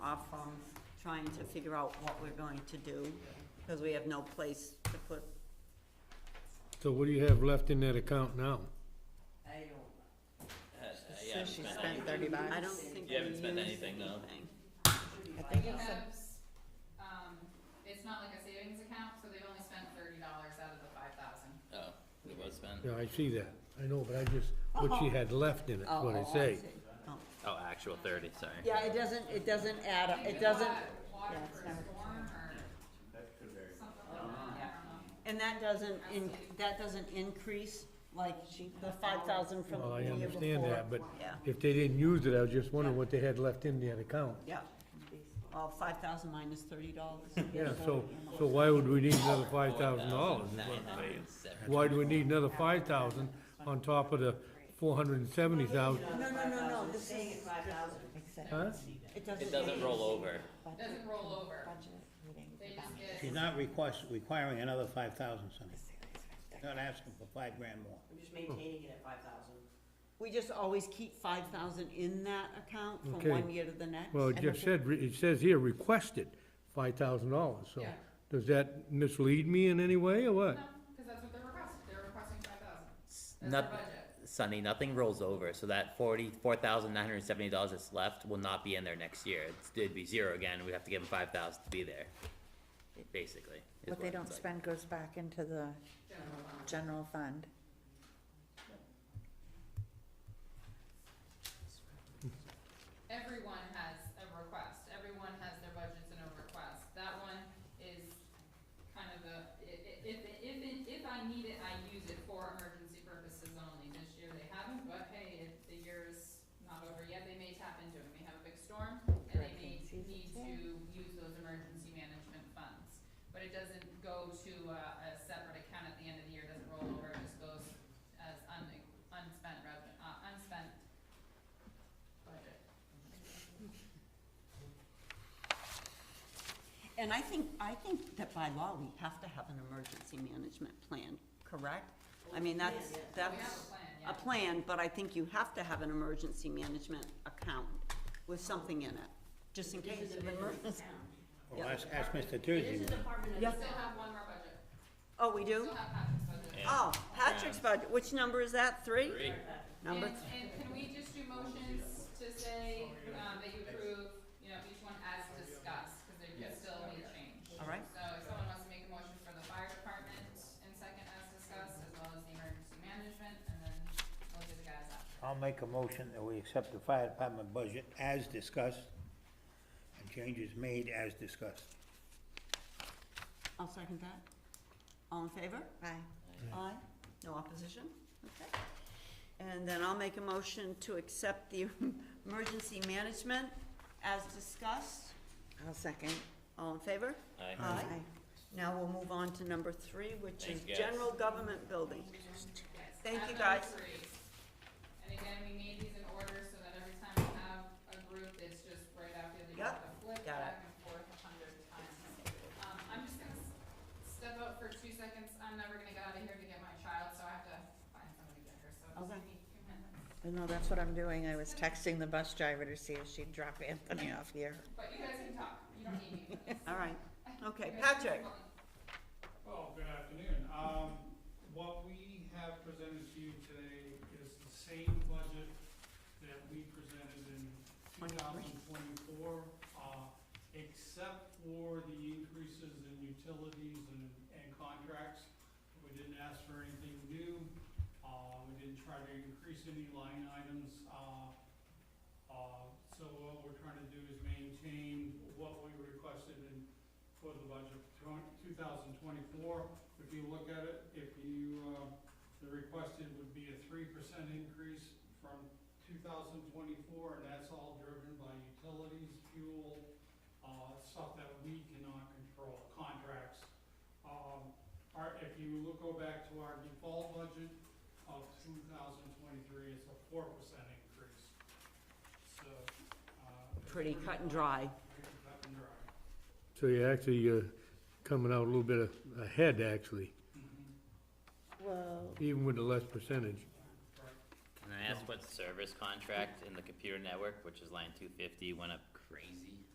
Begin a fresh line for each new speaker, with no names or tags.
off from trying to figure out what we're going to do, because we have no place to put.
So what do you have left in that account now?
I don't.
Uh, yeah, I haven't
she
spent
spent
any-
thirty bucks.
I don't think we
You haven't
used
spent anything, no.
anything.
I think
You
it's a-
have, s- um, it's not like a savings account, so they've only spent thirty dollars out of the five thousand.
Oh, it was spent.
Yeah, I see that, I know, but I just, what she had left in it,
Oh,
what I
oh, I
say.
see.
Oh, actual thirty, sorry.
Yeah, it doesn't, it doesn't add, up. it doesn't,
Water
yeah, it's
for a
not what
storm or something like that, I don't know.
And that doesn't in, that doesn't increase like the five thousand from
Well,
the
I
year
understand
before.
that, but
Yeah,
if they didn't use it, I was just wondering what they had left in that account.
yeah. Well, five thousand minus thirty dollars.
Yeah, so, so why would we need another five thousand dollars? Why do we need another five thousand on top of the four hundred and seventy thousand?
No, no, no, no, this is,
except
Huh?
it doesn't.
It doesn't roll over.
It Doesn't roll over,
budget meeting.
they just get,
She's not request, requiring another five thousand, Sonny. Not asking for five grand more.
I'm just maintaining it at five thousand.
We just always keep five thousand in that account from
Okay.
one year to the next.
Well, it just said, re- it says here requested five thousand dollars, so
Yeah.
does that mislead me in any way or what?
no, cause that's what they're requesting, they're requesting five thousand, that's their
Not,
budget.
Sunny, nothing rolls over, so that forty, four thousand nine hundred seventy dollars that's left will not be in there next year. It's- It'd be zero again, we'd have to give them five thousand to be there, basically. is
What they
it
don't
looks like.
spend goes back into the general fund.
Everyone has a request, everyone has their budgets and a request, that one is kind of a, i- i- if, if, if I need it, I use it for emergency purposes only, this year they haven't, but hey, if the year is not over yet, they may tap into it, we have a big storm, and they may
Hurricane season,
need
yeah.
to use those emergency management funds. But it doesn't go to a, a separate account at the end of the year, It doesn't roll over, it just goes as un, unspent revenue, uh, unspent budget.
And I think, I think that by law, we have to have an emergency management plan, correct? I mean, that's,
We have a
that's
plan, yeah.
a plan, but I think you have to have an emergency management account with something in it, just in case of emergency.
Well, ask, ask Mr. Tursey.
Yeah.
Still have one more budget,
Oh, we do?
still have Patrick's budget.
Yeah.
Oh, Patrick's budget, which number is that, three?
Three.
Number,
And, and can we just do motions to say, um, that you approve, you know, each one as discussed, cause there could still be change.
all right,
So if someone wants to make a motion for the fire department in second as discussed, as well as the emergency management, and then we'll do the guys after.
I'll make a motion that we accept the fire department budget as discussed, and changes made as discussed.
I'll second that. All in favor?
Aye.
Aye. No opposition? Okay. And then I'll make a motion to accept the emergency management as discussed.
I'll second.
All in favor?
Aye.
Aye.
Now we'll move on to number three, which is
Thank you, guys.
general government building.
Yes.
Thank
At
you,
number
guys.
three. And again, we made these in order so that every time we have a group, it's just right out there, that you
Yep,
have to flip
got it.
back and forth a hundred times. Um, I'm just gonna s- step out for two seconds, I'm never gonna get out of here to get my child, so I have to find somebody better, so just
Okay.
give me two minutes.
No, that's what I'm doing. I was texting the bus driver to see if she'd drop Anthony off here.
But you guys can talk, you don't need me for this.
All right, okay,
You guys can
Patrick,
keep going.
Well, good afternoon. Um, what we have presented to you today is the same budget that we presented in two thousand twenty-four, uh, except for the increases in utilities and, and contracts. We didn't ask for anything new, uh, we didn't try to increase any line items, uh, uh, so what we're trying to do is maintain what we requested in for the budget for two thousand twenty-four. If you look at it, if you, uh, the requested would be a three percent increase from two thousand twenty-four, and that's all driven by utilities, fuel, uh, stuff that we cannot control, contracts. Um, our, if you look, go back to our default budget of two thousand twenty-three, it's a four percent increase. So, uh. it's
pretty cut and dry.
Pretty cut and dry.
So you're actually, uh, coming out a little bit a- ahead, actually,
Mhm.
Whoa.
even with the less percentage.
Can I ask what service contract in the computer network, which is line two fifty, went up crazy?